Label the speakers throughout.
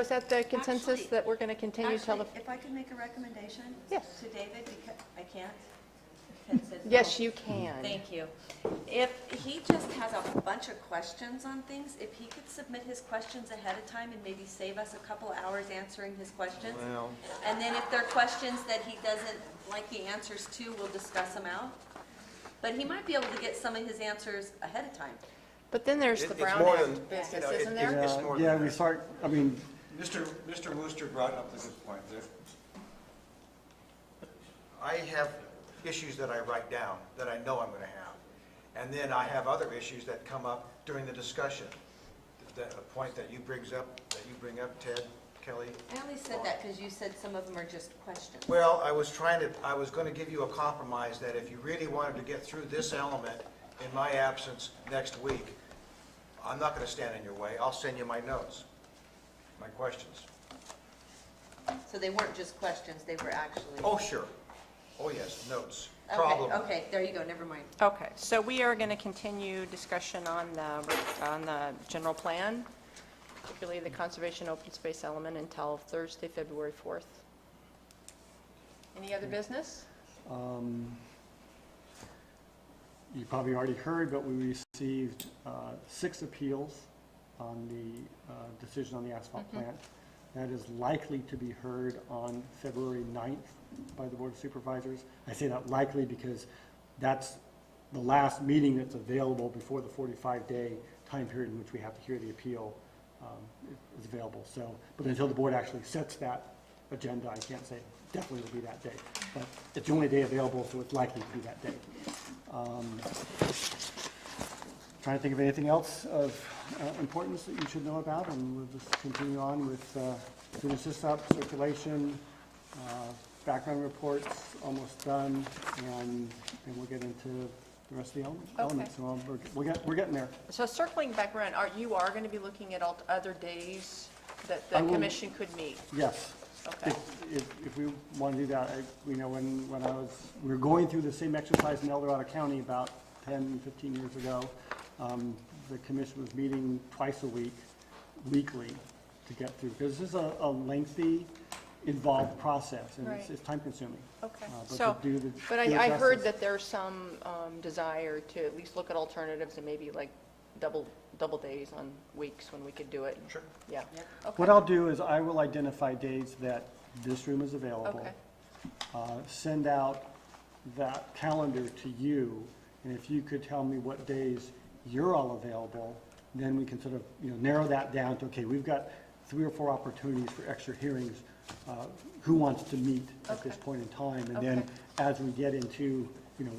Speaker 1: Was that the consensus
Speaker 2: Actually-
Speaker 1: that we're going to continue till the,
Speaker 2: Actually, if I could make a recommendation?
Speaker 1: Yes.
Speaker 2: To David, because, I can't? Ted says
Speaker 1: yes,
Speaker 2: no.
Speaker 1: you can.
Speaker 2: Thank you. If he just has a bunch of questions on things, if he could submit his questions ahead of time and maybe save us a couple hours answering his questions.
Speaker 3: Well-
Speaker 2: And then if there are questions that he doesn't like the answers to, we'll discuss them out. But he might be able to get some of his answers ahead of time.
Speaker 1: But then there's
Speaker 3: It-
Speaker 1: the
Speaker 3: it's
Speaker 1: Brown
Speaker 3: more
Speaker 1: Act
Speaker 3: than- you
Speaker 1: business,
Speaker 3: know, it-
Speaker 1: isn't
Speaker 3: it's-
Speaker 1: there?
Speaker 3: it's
Speaker 4: Yeah,
Speaker 3: more than
Speaker 4: Yeah, we
Speaker 3: that.
Speaker 4: start, I mean,
Speaker 5: Mr. Mr. Wooster brought up the good point. There- I have issues that I write down that I know I'm going to have. And then I have other issues that come up during the discussion. The a point that you brings up, that you bring up, Ted, Kelly.
Speaker 2: I only said that because you said some of them are just questions.
Speaker 5: Well, I was trying to, I was going to give you a compromise that if you really wanted to get through this element in my absence next week, I'm not going to stand in your way. I'll send you my notes, my questions.
Speaker 2: So they weren't just questions, they were actually.
Speaker 5: Oh, sure. Oh, yes, notes.
Speaker 2: Okay,
Speaker 5: Problem.
Speaker 2: Okay, there you go, never mind.
Speaker 6: Okay, so we are going to continue discussion on the, on the general plan,
Speaker 1: Particularly the conservation open space element until Thursday, February 4th. Any other
Speaker 3: Hmm.
Speaker 1: business?
Speaker 4: um, you probably already heard, but we received uh, six appeals on the uh, decision on the asphalt plant. That is likely to be heard on February 9th by the Board of Supervisors. I say that likely because that's the last meeting that's available before the 45-day time period in which we have to hear the appeal um, is available. So, but until the board actually sets that agenda, I can't say definitely it'll be that day. But it's the only day available, so it's likely to be that day. Um, Trying to think of anything else of uh, importance that you should know about, and we'll just continue on with uh, student sys-up, circulation, uh, background reports, almost done, and then we'll get into the rest of the ele- elements. So um, we're- we're get- we're getting there.
Speaker 1: So circling back around, are, you are going to be looking at alt- other days that the
Speaker 4: I will-
Speaker 1: commission could meet?
Speaker 4: Yes.
Speaker 1: Okay.
Speaker 4: If- If, if we want to do that, I, you know, when, when I was, we were going through the same exercise in El Dorado County about 10, 15 years ago. Um, The commission was meeting twice a week, weekly, to get through, because this is a a lengthy, involved process, and it's,
Speaker 1: Right.
Speaker 4: it's time consuming.
Speaker 1: Okay.
Speaker 4: Uh, but to
Speaker 1: So,
Speaker 4: do the-
Speaker 1: But
Speaker 4: do
Speaker 1: I, I
Speaker 4: it
Speaker 1: heard
Speaker 4: justice-
Speaker 1: that there's some um, desire to at least look at alternatives and maybe like double, double days on weeks when we could do it.
Speaker 5: Sure.
Speaker 1: Yeah.
Speaker 4: What I'll do is I will identify days that this room is available.
Speaker 1: Okay.
Speaker 4: uh, Send out that calendar to you, and if you could tell me what days you're all available, then we can sort of, you know, narrow that down to, okay, we've got three or four opportunities for extra hearings. uh, Who wants to meet at this
Speaker 1: Okay.
Speaker 4: point in time? And then
Speaker 1: Okay.
Speaker 4: as we get into, you know,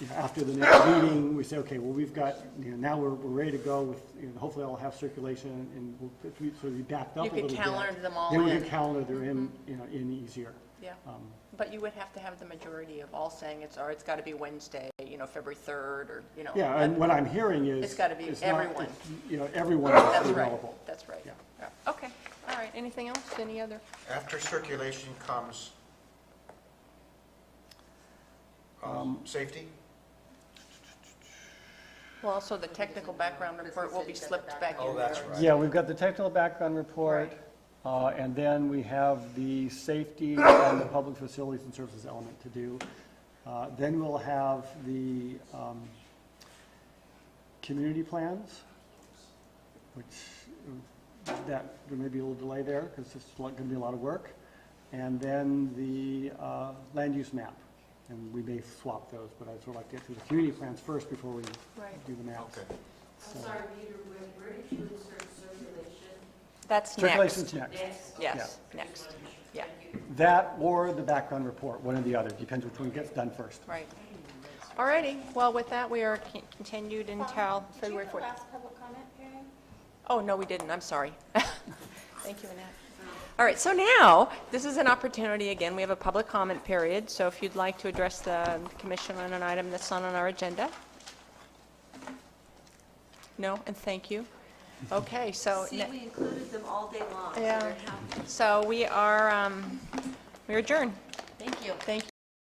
Speaker 4: you know, after the next meeting, we say, okay, well, we've got, you know, now we're, we're ready to go with, you know, hopefully I'll have circulation and we'll, if we- so we backed up
Speaker 1: You
Speaker 4: a
Speaker 1: could
Speaker 4: little bit.
Speaker 1: calendar them all
Speaker 4: Then we
Speaker 1: in. Mm-hmm.
Speaker 4: could calendar them in, you know, in easier.
Speaker 1: Yeah,
Speaker 4: Um,
Speaker 1: but you would have to have the majority of all saying it's, or it's got to be Wednesday, you know, February 3rd, or, you know.
Speaker 4: Yeah, and
Speaker 1: that-
Speaker 4: what I'm hearing is.
Speaker 1: It's gotta be
Speaker 4: not-
Speaker 1: everyone.
Speaker 4: it's, You know, everyone is
Speaker 1: That's right,
Speaker 4: available.
Speaker 1: that's right.
Speaker 4: Yeah.
Speaker 1: Yeah. Okay, all right, anything else, any other?
Speaker 5: After circulation comes um, safety?
Speaker 1: Well, also the technical background report will be slipped back in.
Speaker 5: Oh, that's right.
Speaker 4: Yeah, we've got the technical background report, uh, and then we have the safety and the public facilities and services element to do. Uh, Then we'll have the um, community plans, which, uh, that, there may be a little delay there, because it's going to be a lot of work. And then the uh, land use map, and we may swap those, but I'd sort of like to get through the community plans first before we
Speaker 1: Right.
Speaker 4: do the maps.
Speaker 5: Okay.
Speaker 4: So-
Speaker 7: I'm sorry, Peter, where, where did you insert circulation?
Speaker 6: That's
Speaker 4: Circulation's
Speaker 6: next.
Speaker 7: Next.
Speaker 4: next.
Speaker 6: Yes, next, yeah,
Speaker 4: That or the background report, one or the other, depends which one gets done first.
Speaker 6: right.
Speaker 1: All righty, well, with that, we are con- continued until
Speaker 8: Um,
Speaker 1: February
Speaker 8: Did you
Speaker 1: 4th.
Speaker 8: have a last public comment, Karen?
Speaker 1: Oh, no, we didn't, I'm sorry. Thank you, Annette. All right, so now, this is an opportunity, again, we have a public comment period, so if you'd like to address the commission on an item that's not on our agenda? No, and thank you. Okay, so.
Speaker 2: See,
Speaker 1: ne-
Speaker 2: we included them all day long, so
Speaker 1: Yeah.
Speaker 2: they're happy.
Speaker 1: So we are, um, we adjourn.
Speaker 2: Thank you.
Speaker 1: Thank you.